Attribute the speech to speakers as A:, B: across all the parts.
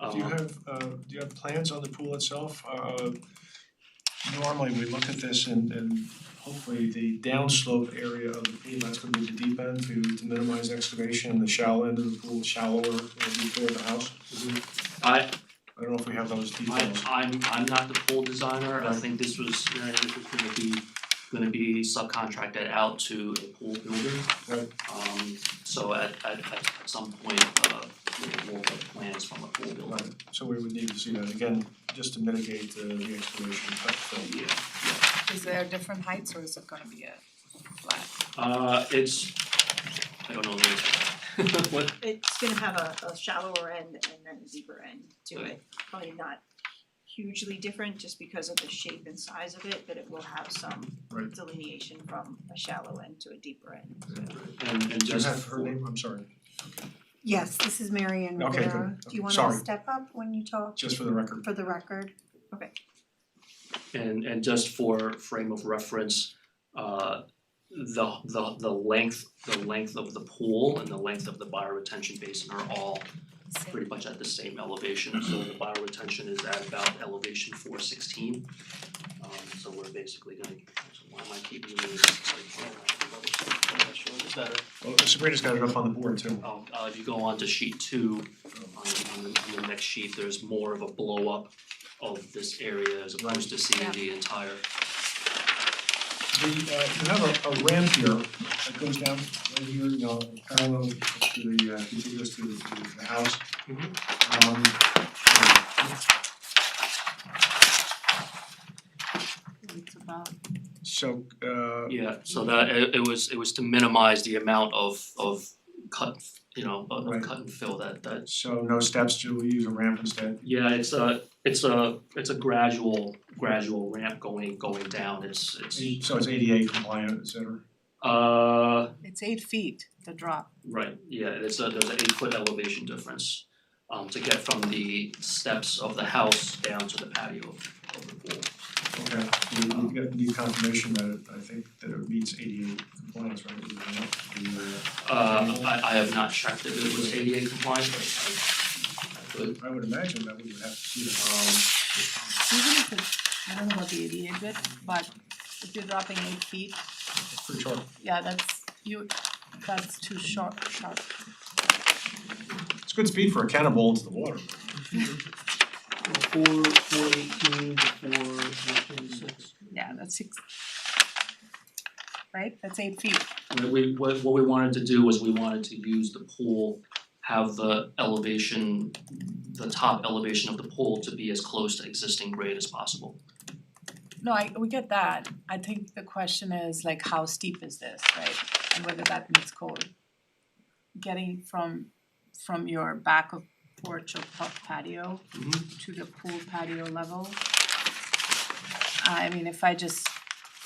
A: Do
B: Uh-huh.
A: you have, uh, do you have plans on the pool itself? Uh, normally, we look at this and, and hopefully the downslope area of the pool, that's gonna be the deep end to, to minimize excavation, and the shallow end of the pool, is shallower, uh, before the house.
B: I
A: I don't know if we have those
B: I
A: details.
B: I'm I'm not the pool designer, I
A: Right.
B: think this was, uh, this was gonna be gonna be subcontracted out to a pool builder.
A: Right.
B: Um so at at at some point, uh you know, we'll get plans from a pool builder.
A: Right, so we would need to see that again, just to mitigate uh, the excavation, but uh, so.
B: Yeah.
C: Is there different heights or is it gonna be a flat?
B: Uh it's, I don't know, the- what
D: It's gonna have a a shallower end and then a deeper end to it, probably not hugely different just because of the shape and size of it, but it will have some
A: Right.
D: delineation from a shallow end to a deeper end.
B: and and
A: Do you
B: just
A: have her
B: for-
A: name? I'm sorry,
E: Yes, this is Marion
A: Okay, good.
E: Rivera. Do
A: Okay,
E: you wanna
A: sorry.
E: step up when you talk
A: just for the record.
E: for the record?
B: And and just for frame of reference, uh the the the length, the length of the pool and the length of the bioretention basin are all pretty much at the same elevation, so the bioretention is at about elevation four sixteen. Um so we're basically gonna, so why am I keeping using this like better.
A: Well, Sabrina's got it up on the board too.
B: Oh, uh if you go on to sheet two, on the on the on the next sheet, there's more of a blow up of this area as opposed to seeing
C: Yeah.
B: the entire
A: The, uh, you have a, a ramp here that goes down right here, you know, parallel to the, uh, contiguous to the, to the house. Um,
C: It's about
A: so, uh,
B: Yeah, so that it it was it was to minimize the amount of of cut, you know, of
A: Right.
B: of cut and fill that that.
A: so no steps, do we use a ramp instead?
B: Yeah, it's a it's a it's a gradual gradual ramp going going down, it's it's
A: So it's ADA compliant, et cetera?
B: uh
C: It's eight feet, the drop.
B: right, yeah, it's a there's an eight foot elevation difference um to get from the steps of the house down to the patio of of the pool.
A: Okay, we we get- need confirmation that it, I think that it meets ADA compliance, right? with the ramp, the, uh,
B: Uh I I have not checked if it was ADA compliant, but I I could,
A: uh, I would imagine that we would have to see uh, that.
B: um
C: Even if it's, I don't know about the ADA bit, but if you're dropping eight feet,
A: For sure.
C: yeah, that's you, that's too short, sharp.
A: It's good speed for a cannonball into the water.
B: Four, four eighteen to four twenty-six.
C: Yeah, that's six. Right, that's eight feet.
B: What we, what, what we wanted to do was we wanted to use the pool, have the elevation, the top elevation of the pool to be as close to existing grade as possible.
C: No, I, we get that. I think the question is like, how steep is this, right? And whether that meets code. Getting from, from your back of porch or pa- patio to the pool patio level. I mean, if I just,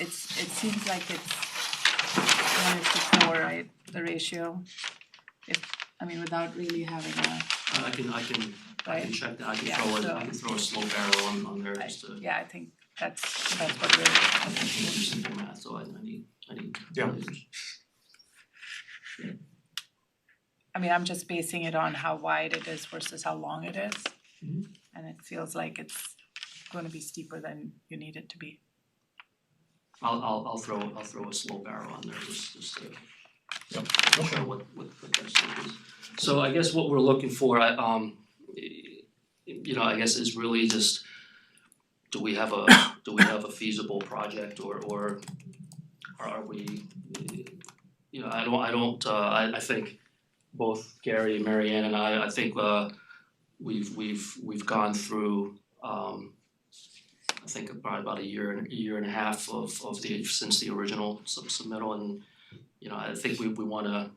C: it's, it seems like it's one is to four, right, the ratio. If, I mean, without really having
B: Uh,
C: a,
B: I I can, I can, I can
C: right,
B: check that, I can
C: Yeah,
B: throw
C: so-
B: a, I can throw a slow barrel on, on there just to,
C: yeah, I think that's, that's what we're.
B: I can do simple math, so I, I need, I need.
A: Yeah.
C: I mean, I'm just basing it on how wide it is versus how long it is.
B: Mhm.
C: And it feels like it's gonna be steeper than you need it to be.
B: I'll, I'll, I'll throw, I'll throw a slow barrel on there just, just to
A: Okay.
B: show what what what their state is. So I guess what we're looking for, I um y- you know, I guess is really just do we have a do we have a feasible project or or are we you know, I don't I don't uh I I think both Gary and Marianne and I, I think uh we've we've we've gone through um I think probably about a year and a year and a half of of the since the original sub- submittal and you know, I think we we wanna,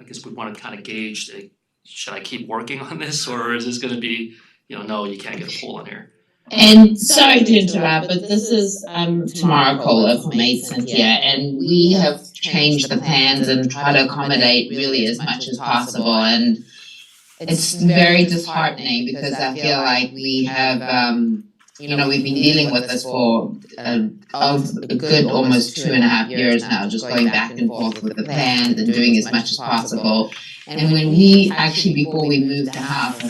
B: I guess we wanna kind of gauge, like, should I keep working on this or is this gonna be, you know, no, you can't get a pool in here.
F: And sorry to interrupt, but this is um, Tamara Cole of Maidson here, and we have changed the plans and try to accommodate really as much as possible. And it's very disheartening because I feel like we have, um, you know, we've been dealing with this for a, a good almost two and a half years now, just going back and forth with the plans and doing as much as possible. And when we actually, before we moved the house,